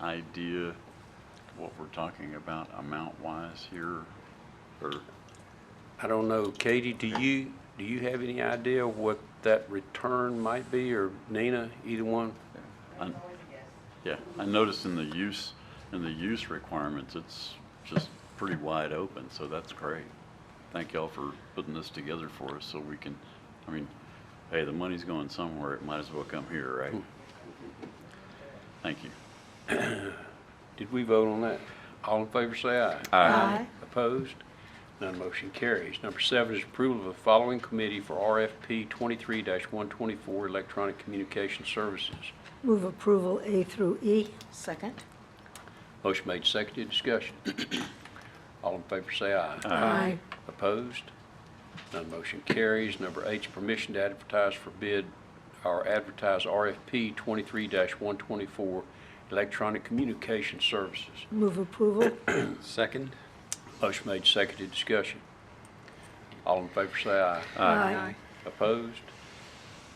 idea what we're talking about amount-wise here? Or, I don't know, Katie, do you, do you have any idea what that return might be, or Nina, either one? I- yeah, I noticed in the use, in the use requirements, it's just pretty wide open, so that's great. Thank y'all for putting this together for us so we can, I mean, hey, the money's going somewhere, it might as well come here, right? Thank you. Did we vote on that? All in favor, say aye. Aye. Opposed? None motion carries. Number seven is approval of the following committee for RFP 23-124 Electronic Communication Services. Move approval A through E. Second. Motion made, seconded, discussion. All in favor, say aye. Aye. Opposed? None motion carries. Number eight is permission to advertise for bid or advertise RFP 23-124 Electronic Communication Services. Move approval. Second? Motion made, seconded, discussion. All in favor, say aye. Aye. Opposed?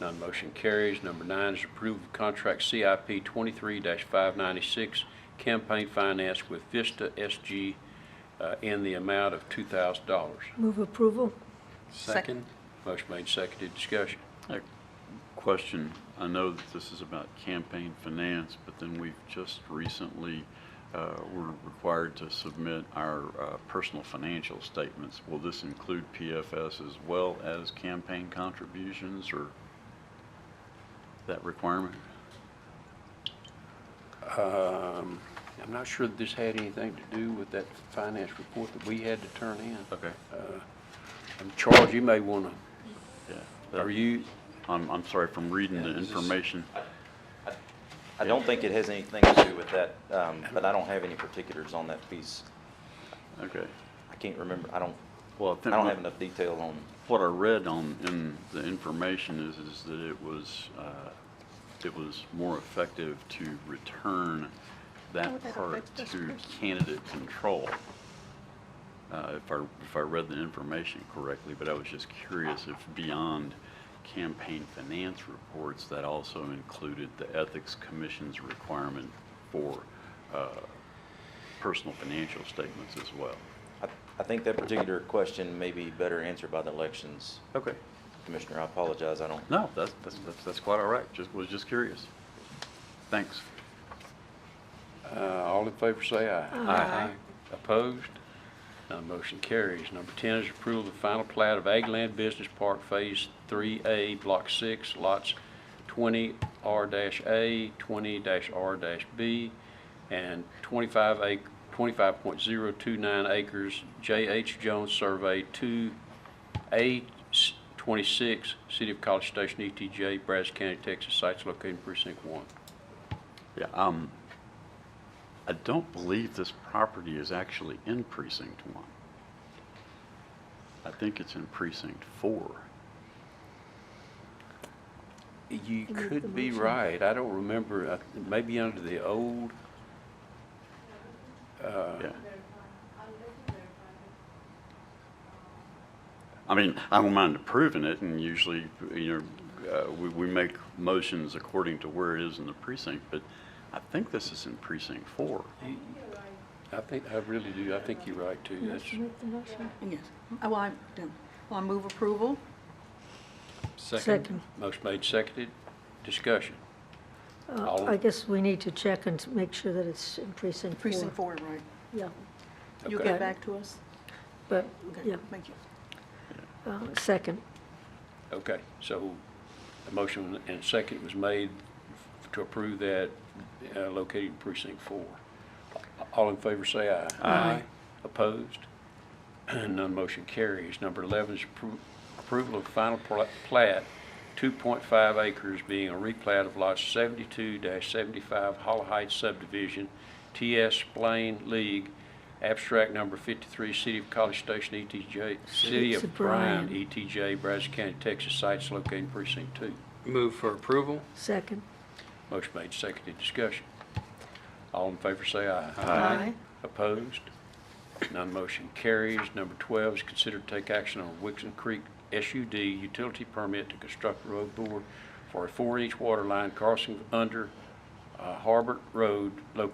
None motion carries. Number nine is approval of contract CIP 23-596, campaign finance with Vista SG uh, in the amount of $2,000. Move approval. Second? Motion made, seconded, discussion. A Question, I know that this is about campaign finance, but then we've just recently, uh, were required to submit our uh, personal financial statements. Will this include PFS as well as campaign contributions or that requirement? Um, I'm not sure that this had anything to do with that finance report that we had to turn in. Okay. Uh, Um, Charles, you may want to, are Yeah. you, I'm, I'm sorry, from reading the Yeah, this is- information, I don't think it has anything to do with that, um, but I don't have any particulars on that piece. okay. I can't remember, I don't, Well, I don't have enough detail on, What I read on, in the information is, is that it was, uh, it was more effective to return How would that that part affect this to person? candidate control. Uh, if I, if I read the information correctly, but I was just curious if beyond campaign finance reports, that also included the Ethics Commission's requirement for, uh, personal financial statements as well. I, I think that particular question may be better answered by the elections Okay. commissioner. I apologize, I don't. No, that's, that's, that's, that's quite all right. Just, was just curious. Thanks. uh, all in favor, say aye. Aye. Opposed? None motion carries. Number 10 is approval of the final plat of Ag Land Business Park Phase 3A, Block 6, Lots 20R-A, 20-R-B, and 25 ac- 25.029 acres, J.H. Jones Survey 2A26, City of College Station, ETJ, Brazos County, Texas, sites located in Precinct 1. Yeah, um, I don't believe this property is actually in precinct one. I think it's in precinct four. You make the could be motion. right. I don't remember, I th- maybe under the old, Yeah. I mean, I don't mind approving it and usually, you know, uh, we, we make motions according to where it is in the precinct, but I think this is in precinct four. I think, I really do, I think you're right too. That's, Make the motion. Yes. Oh, Well, I, well, I move approval. Second. motion made, seconded, discussion. Uh, I guess we need to check and make sure that it's in precinct four. Precinct four, right. Yeah, You'll Okay. get back to us? but, Okay, yeah, thank you. uh, second. Okay, so a motion and second was made to approve that uh, located in precinct four. All in favor, say aye. Aye. Opposed? None motion carries. Number 11 is appro- approval of final pla- plat, 2.5 acres being a replat of lots 72-75 Hollow Heights subdivision, TS Blaine League, abstract number 53, City of College Station, ETJ, City of of Bryan, Bryan. ETJ, Brazos County, Texas, sites located in precinct 2. Move for approval? Second. Motion made, seconded, discussion. All in favor, say aye. Aye. Opposed? None motion carries. Number 12 is consider to take action on Wixon Creek SUD utility permit to construct road board for a four-inch water line crossing under uh, Harbert Road located